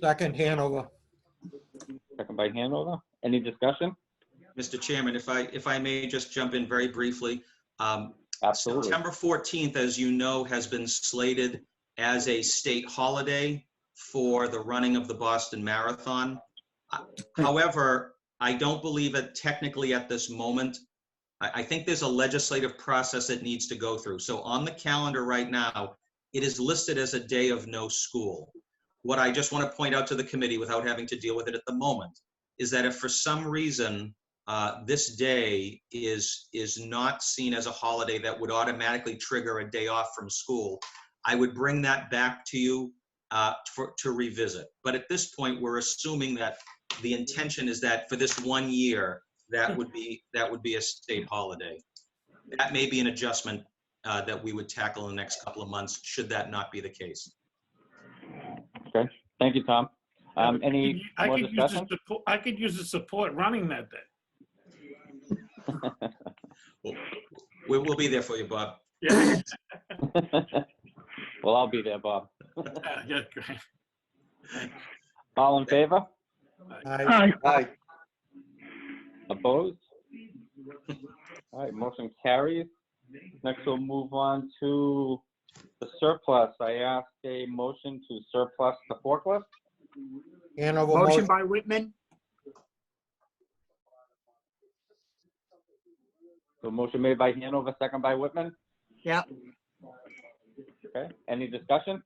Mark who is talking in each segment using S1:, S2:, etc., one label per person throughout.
S1: Second, Hanover.
S2: Second by Hanover. Any discussion?
S3: Mr. Chairman, if I, if I may just jump in very briefly. um,
S2: Absolutely.
S3: September 14th, as you know, has been slated as a state holiday for the running of the Boston Marathon. Uh, However, I don't believe it technically at this moment. I, I think there's a legislative process it needs to go through. So on the calendar right now, it is listed as a day of no school. What I just want to point out to the committee without having to deal with it at the moment is that if for some reason uh, this day is, is not seen as a holiday that would automatically trigger a day off from school. I would bring that back to you uh, for, to revisit. But at this point, we're assuming that the intention is that for this one year, that would be, that would be a state holiday. That may be an adjustment uh, that we would tackle in the next couple of months, should that not be the case.
S2: Thank you, Tom. Um, any
S4: I
S2: more
S4: could use the
S2: discussion?
S4: support, I could use the support running that day.
S3: We will be there for you, Bob.
S4: Yeah,
S2: Well, I'll be there, Bob.
S4: yeah, yeah, great.
S2: All in favor?
S1: Aye.
S2: Opposed? All right, motion carries. Next, we'll move on to the surplus. I ask a motion to surplus the forklift.
S1: Hanover
S5: Motion
S1: motion.
S5: by Whitman,
S2: So motion made by Hanover, second by Whitman.
S5: Yep.
S2: Okay, any discussion?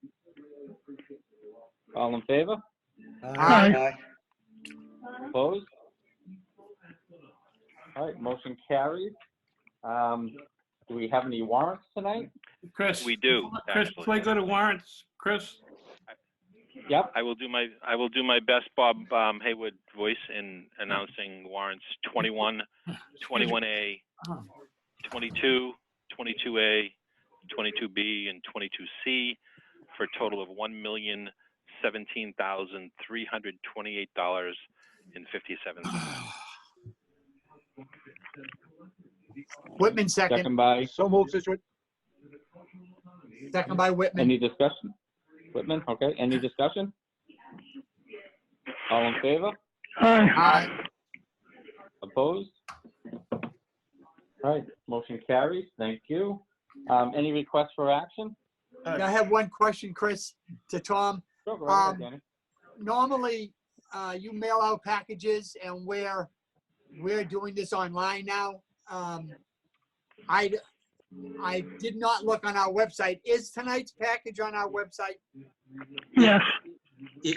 S2: All in favor?
S1: Aye.
S2: Opposed? All right, motion carries. Um, do we have any warrants tonight?
S4: Chris.
S6: We do,
S4: Chris,
S6: actually.
S4: before I go to warrants, Chris,
S2: Yep,
S6: I will do my, I will do my best, Bob um, Haywood voice in announcing warrants 21, 21A, 22, 22A, 22B, and 22C for a total of $1,017,328.57.
S5: Whitman second,
S2: second by,
S7: So moved, Situate.
S5: second by Whitman.
S2: any discussion? Whitman, okay, any discussion? All in favor?
S5: Aye.
S2: Opposed? All right, motion carries, thank you. Um, any requests for action?
S5: Now, I have one question, Chris, to Tom.
S2: Sure, go ahead,
S5: Um,
S2: Danny.
S5: Normally, uh, you mail out packages and we're, we're doing this online now. Um, I, I did not look on our website. Is tonight's package on our website?
S3: It,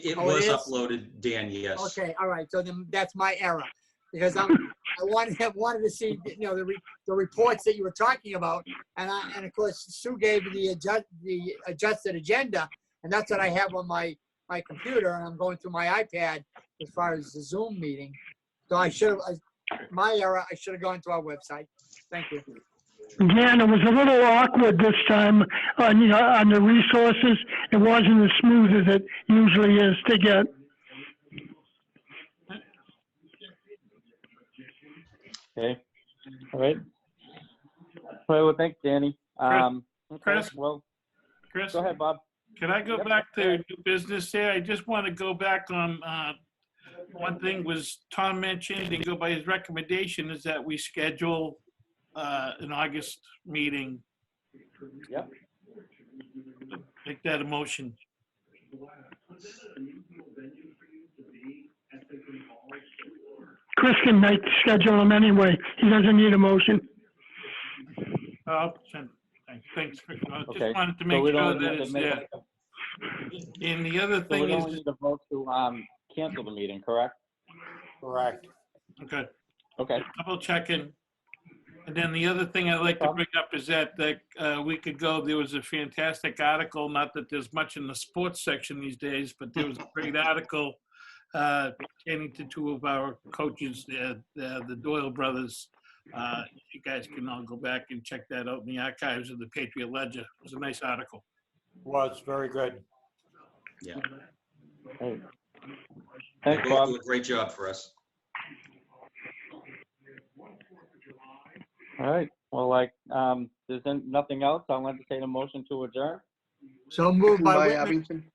S3: it
S5: Oh, it
S3: was
S5: is?
S3: uploaded, Dan, yes.
S5: Okay, all right, so then that's my error, because I'm, I wanted, I wanted to see, you know, the, re- the reports that you were talking about, and I, and of course, Sue gave me the adjust, the adjusted agenda, and that's what I have on my, my computer, and I'm going through my iPad as far as the Zoom meeting. So I should have, my error, I should have gone to our website, thank you.
S8: Dan, it was a little awkward this time on, you know, on the resources. It wasn't as smooth as it usually is to get.
S2: Okay, all right. All right, well, thanks, Danny. Um, okay,
S4: Chris?
S2: Well,
S4: Chris,
S2: go ahead, Bob.
S4: can I go
S2: Yep,
S4: back
S2: go
S4: to
S2: ahead.
S4: new business here? I just want to go back on, uh, one thing was Tom mentioned, and go by his recommendation, is that we schedule, uh, an August meeting.
S2: Yep.
S4: Make that a motion.
S8: Chris can make, schedule him anyway. He doesn't need a motion.
S4: Oh, send- thank- Thanks, Chris. I
S2: Okay,
S4: just wanted to
S2: So
S4: make
S2: we don't
S4: sure
S2: need
S4: that
S2: to
S4: it's
S2: make-
S4: there. And the other
S2: So we
S4: thing
S2: don't
S4: is,
S2: need to vote to, um, cancel the meeting, correct?
S1: Correct.
S4: okay,
S2: Okay,
S4: double checking. And then the other thing I'd like to
S2: Bob?
S4: bring up is that, that uh, we could go, there was a fantastic article, not that there's much in the sports section these days, but there was a great article uh, pertaining to two of our coaches, the the the Doyle brothers. Uh, You guys can all go back and check that out in the archives of the Patriot Ledger. It was a nice article.
S1: Was very good.
S3: They
S2: thanks,
S3: both
S2: Bob.
S3: do a great job for us.
S2: All right, well, like, um, there's then nothing else, I'll entertain a motion to adjourn.
S5: So moved by
S7: By
S5: Whitman,
S7: Abington.